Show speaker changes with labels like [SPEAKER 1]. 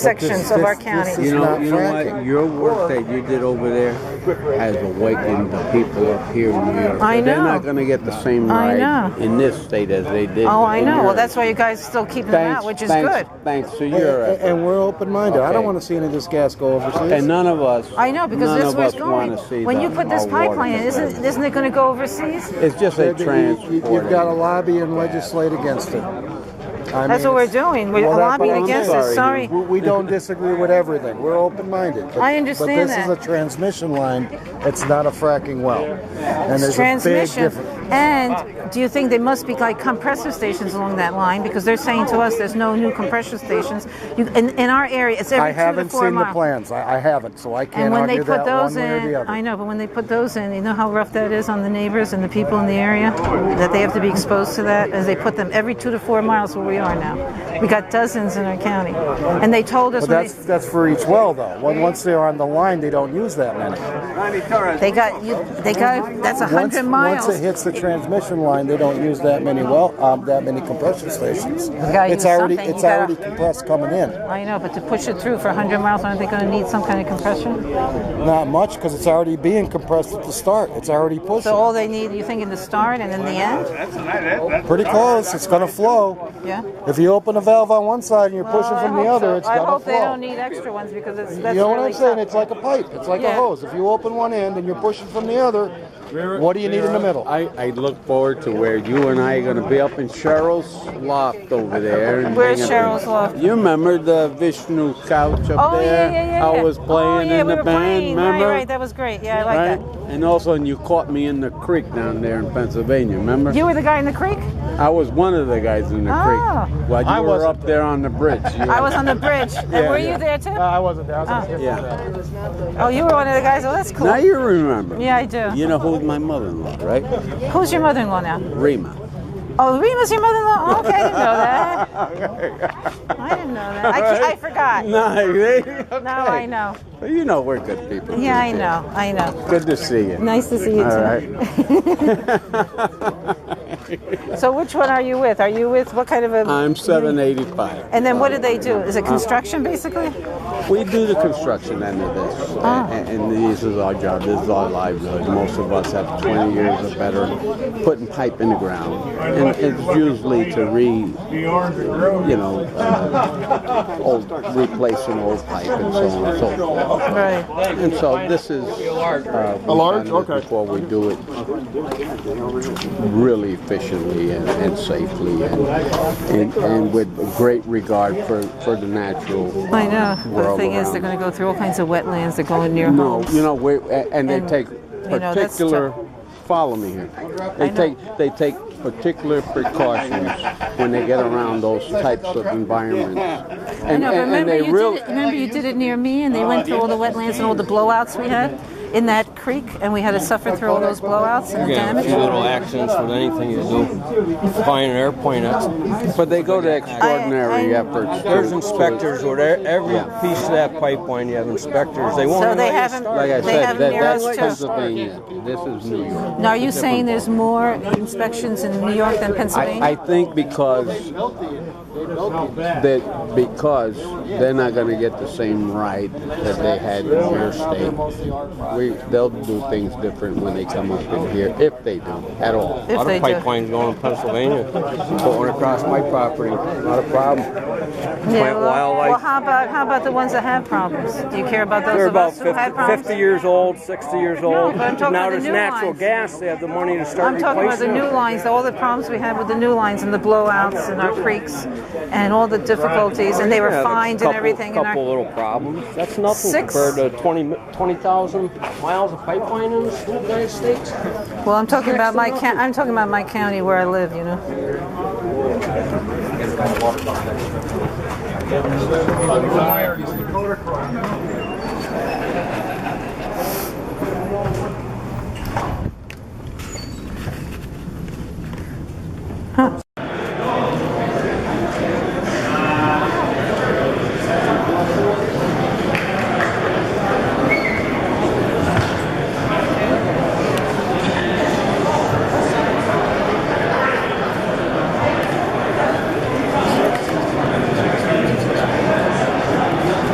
[SPEAKER 1] sections
[SPEAKER 2] this-
[SPEAKER 1] of our
[SPEAKER 2] this-
[SPEAKER 1] county.
[SPEAKER 2] this
[SPEAKER 3] You
[SPEAKER 2] is
[SPEAKER 3] know,
[SPEAKER 2] not
[SPEAKER 3] you know what?
[SPEAKER 2] fracking.
[SPEAKER 3] Your work that you did over there has awakened the people up here in New York.
[SPEAKER 1] I
[SPEAKER 3] They're
[SPEAKER 1] know.
[SPEAKER 3] not going to get the same
[SPEAKER 1] I
[SPEAKER 3] ride
[SPEAKER 1] know.
[SPEAKER 3] in this state as they did.
[SPEAKER 1] Oh, I
[SPEAKER 3] in
[SPEAKER 1] know. Well,
[SPEAKER 3] yours.
[SPEAKER 1] that's why you guys still keeping them
[SPEAKER 3] thanks,
[SPEAKER 1] out, which is
[SPEAKER 3] thanks,
[SPEAKER 1] good.
[SPEAKER 3] Thanks to
[SPEAKER 2] And,
[SPEAKER 3] your effort.
[SPEAKER 2] and we're open-minded. I don't
[SPEAKER 3] Okay.
[SPEAKER 2] want to see any of this gas go overseas.
[SPEAKER 3] And none of us.
[SPEAKER 1] I know because
[SPEAKER 3] none
[SPEAKER 1] this
[SPEAKER 3] of
[SPEAKER 1] was
[SPEAKER 3] us
[SPEAKER 1] going.
[SPEAKER 3] wanna see
[SPEAKER 1] When
[SPEAKER 3] the-
[SPEAKER 1] you put this
[SPEAKER 3] our water
[SPEAKER 1] pipeline in,
[SPEAKER 3] system.
[SPEAKER 1] isn't isn't it going to go overseas?
[SPEAKER 3] It's just a
[SPEAKER 2] But you- you-
[SPEAKER 3] transport.
[SPEAKER 2] You've got to lobby and legislate against it. I
[SPEAKER 1] That's
[SPEAKER 2] mean,
[SPEAKER 1] what we're
[SPEAKER 2] it's-
[SPEAKER 1] doing. We're
[SPEAKER 2] Well, that's what
[SPEAKER 1] lobbying
[SPEAKER 2] I'm
[SPEAKER 1] against it.
[SPEAKER 3] saying.
[SPEAKER 1] Sorry.
[SPEAKER 2] We we don't disagree with everything. We're open-minded. But-
[SPEAKER 1] I understand
[SPEAKER 2] But this is
[SPEAKER 1] that.
[SPEAKER 2] a transmission line. It's not a fracking well. And there's a big
[SPEAKER 1] transmission.
[SPEAKER 2] difference.
[SPEAKER 1] And do you think there must be like compressor stations along that line? Because they're saying to us there's no new compressor stations. You, in, in our area, it's every
[SPEAKER 2] I haven't
[SPEAKER 1] two to four
[SPEAKER 2] seen the
[SPEAKER 1] mile.
[SPEAKER 2] plans. I I haven't, so I
[SPEAKER 1] And
[SPEAKER 2] can't
[SPEAKER 1] when they
[SPEAKER 2] argue
[SPEAKER 1] put
[SPEAKER 2] that one
[SPEAKER 1] those
[SPEAKER 2] way or
[SPEAKER 1] in,
[SPEAKER 2] the other.
[SPEAKER 1] I know, but when they put those in, you know how rough that is on the neighbors and the people in the area? That they have to be exposed to that? As they put them every two to four miles where we are now. We got dozens in our county. And they told us
[SPEAKER 2] But
[SPEAKER 1] when
[SPEAKER 2] that's,
[SPEAKER 1] they,
[SPEAKER 2] that's for each well, though. When- Once they're on the line, they don't use that many.
[SPEAKER 1] they got, you, they got, that's a
[SPEAKER 2] Once,
[SPEAKER 1] hundred miles.
[SPEAKER 2] once it hits the transmission line, they don't use that many well, um, that many compression stations.
[SPEAKER 1] gotta
[SPEAKER 2] It's
[SPEAKER 1] use
[SPEAKER 2] already,
[SPEAKER 1] something.
[SPEAKER 2] it's
[SPEAKER 1] You gotta-
[SPEAKER 2] already compressed coming in.
[SPEAKER 1] I know, but to push it through for hundred miles, aren't they gonna need some kind of compression?
[SPEAKER 2] Not much, because it's already being compressed at the start. It's already pushing.
[SPEAKER 1] So all they need, you think, in the start and in the end?
[SPEAKER 2] Pretty close. It's going to flow.
[SPEAKER 1] Yeah.
[SPEAKER 2] If you open a valve on one side and you're pushing
[SPEAKER 1] I
[SPEAKER 2] from the
[SPEAKER 1] hope
[SPEAKER 2] other,
[SPEAKER 1] so.
[SPEAKER 2] it's
[SPEAKER 1] I
[SPEAKER 2] going
[SPEAKER 1] hope
[SPEAKER 2] to
[SPEAKER 1] they don't
[SPEAKER 2] flow.
[SPEAKER 1] need extra ones because it's
[SPEAKER 2] You
[SPEAKER 1] that's
[SPEAKER 2] know what
[SPEAKER 1] really
[SPEAKER 2] I'm saying?
[SPEAKER 1] tough.
[SPEAKER 2] It's like a pipe. It's like a
[SPEAKER 1] Yeah.
[SPEAKER 2] hose. If you open one end and you're pushing from the other, what do you need in the middle?
[SPEAKER 3] I, I look forward to where you and I are going to be up in Cheryl's loft over there. and
[SPEAKER 1] Where's
[SPEAKER 3] hanging out.
[SPEAKER 1] Cheryl's loft?
[SPEAKER 3] You remember the Vishnu couch up
[SPEAKER 1] Oh yeah,
[SPEAKER 3] there?
[SPEAKER 1] yeah, yeah, yeah.
[SPEAKER 3] I was playing
[SPEAKER 1] oh, yeah,
[SPEAKER 3] in
[SPEAKER 1] we
[SPEAKER 3] the
[SPEAKER 1] were
[SPEAKER 3] band,
[SPEAKER 1] Playing.
[SPEAKER 3] remember?
[SPEAKER 1] Right, right. That was great. Yeah, I like
[SPEAKER 3] Right? And also, and you caught me in the creek down there in Pennsylvania. Remember?
[SPEAKER 1] that. You were the guy in the creek.
[SPEAKER 3] I was one of the guys in the
[SPEAKER 1] Oh.
[SPEAKER 3] creek while you
[SPEAKER 2] I
[SPEAKER 3] were
[SPEAKER 2] wasn't
[SPEAKER 3] up there on the bridge. You
[SPEAKER 1] I was on the bridge. And
[SPEAKER 3] Yeah,
[SPEAKER 1] were
[SPEAKER 3] yeah.
[SPEAKER 1] you there too?
[SPEAKER 2] I wasn't there. I was
[SPEAKER 1] on a different
[SPEAKER 3] yeah.
[SPEAKER 1] oh, you were one of the guys. Oh, that's cool.
[SPEAKER 3] Now you remember.
[SPEAKER 1] Yeah, I do.
[SPEAKER 3] You know who's my mother-in-law, right?
[SPEAKER 1] Who's your mother-in-law now?
[SPEAKER 3] Rima.
[SPEAKER 1] Oh, Rima's your mother-in-law. Oh, okay, I didn't know that. I didn't know that. I, ca- I forgot.
[SPEAKER 3] No,
[SPEAKER 1] Now I know.
[SPEAKER 3] You know we're good people.
[SPEAKER 1] Yeah, I know. I know.
[SPEAKER 3] Good to see you.
[SPEAKER 1] Nice to see you too.
[SPEAKER 3] All right.
[SPEAKER 1] So which one are you with? Are you with what kind of a?
[SPEAKER 3] I'm 785.
[SPEAKER 1] And then what do they do? Is it construction basically?
[SPEAKER 3] We do the construction end of this,
[SPEAKER 1] Ah.
[SPEAKER 3] and, and this is our job. This is our livelihood. Most of us have 20 years or better putting pipe in the ground, and it's usually to re, you know, uh, old replace an old pipe and so on and so forth.
[SPEAKER 1] Right.
[SPEAKER 3] And so this is uh, a large. Okay. Before we do it really efficiently and, and safely, and, and and with great regard for for the natural.
[SPEAKER 1] I know. But the
[SPEAKER 3] world
[SPEAKER 1] thing is, they're
[SPEAKER 3] around
[SPEAKER 1] going
[SPEAKER 3] us.
[SPEAKER 1] to go through all kinds of wetlands. They're going near
[SPEAKER 3] No,
[SPEAKER 1] homes.
[SPEAKER 3] you know, we a- and they
[SPEAKER 1] And,
[SPEAKER 3] take
[SPEAKER 1] you know, that's
[SPEAKER 3] particular. follow me here. They
[SPEAKER 1] know.
[SPEAKER 3] take they take particular precautions when they get around those types of environments, and,
[SPEAKER 1] No, but
[SPEAKER 3] and, and
[SPEAKER 1] remember
[SPEAKER 3] they
[SPEAKER 1] you
[SPEAKER 3] really.
[SPEAKER 1] did it, remember you did it near me, and they went through all the wetlands and all the blowouts we had in that creek, and we had to suffer through all those blowouts and the
[SPEAKER 4] Yeah, a few
[SPEAKER 1] damage.
[SPEAKER 4] little accidents with anything you do. Flying an airplane, that's,
[SPEAKER 3] But they go to extraordinary
[SPEAKER 1] I-
[SPEAKER 3] efforts. to-
[SPEAKER 4] there's
[SPEAKER 3] to-
[SPEAKER 4] inspectors with e- every piece of that pipeline. You have inspectors. They won't.
[SPEAKER 1] So
[SPEAKER 4] even
[SPEAKER 1] they
[SPEAKER 4] let you
[SPEAKER 1] haven't-
[SPEAKER 4] start.
[SPEAKER 3] Like I
[SPEAKER 1] They have
[SPEAKER 3] said, that, that's
[SPEAKER 1] narrows too.
[SPEAKER 3] Pennsylvania. This is New York.
[SPEAKER 1] Now, are you saying there's more inspections in New York than Pennsylvania?
[SPEAKER 3] I, I think because that because they're not going to get the same right that they had in your state. We they'll do things different when they come up in here, if they do at all.
[SPEAKER 4] A
[SPEAKER 1] if
[SPEAKER 4] lot
[SPEAKER 1] they
[SPEAKER 4] of
[SPEAKER 1] do.
[SPEAKER 4] pipelines going to Pennsylvania, going across my property. Not a problem.
[SPEAKER 1] Yeah,
[SPEAKER 4] plant
[SPEAKER 1] well,
[SPEAKER 4] wildlife.
[SPEAKER 1] well, how about how about the ones that have problems? Do you care about those
[SPEAKER 4] They're
[SPEAKER 1] of
[SPEAKER 4] about
[SPEAKER 1] us who have
[SPEAKER 4] 50,
[SPEAKER 1] problems?
[SPEAKER 4] 50 years old, 60 years old.
[SPEAKER 1] but I'm talking about
[SPEAKER 4] now
[SPEAKER 1] the
[SPEAKER 4] there's
[SPEAKER 1] new
[SPEAKER 4] natural
[SPEAKER 1] lines.
[SPEAKER 4] gas. They have the money to start
[SPEAKER 1] I'm talking about the
[SPEAKER 4] replacing
[SPEAKER 1] new
[SPEAKER 4] them.
[SPEAKER 1] lines, all the problems we had with the new lines and the blowouts and our creeks and all the difficulties, and they were
[SPEAKER 4] Yeah, there's a
[SPEAKER 1] fined
[SPEAKER 4] couple,
[SPEAKER 1] and everything.
[SPEAKER 4] Couple
[SPEAKER 1] and our,
[SPEAKER 4] little problems. That's nothing
[SPEAKER 1] Six-
[SPEAKER 4] compared to 20 20,000 miles of pipeline in the United States.
[SPEAKER 1] well, I'm talking about my ca- I'm talking about my county where I live, you know.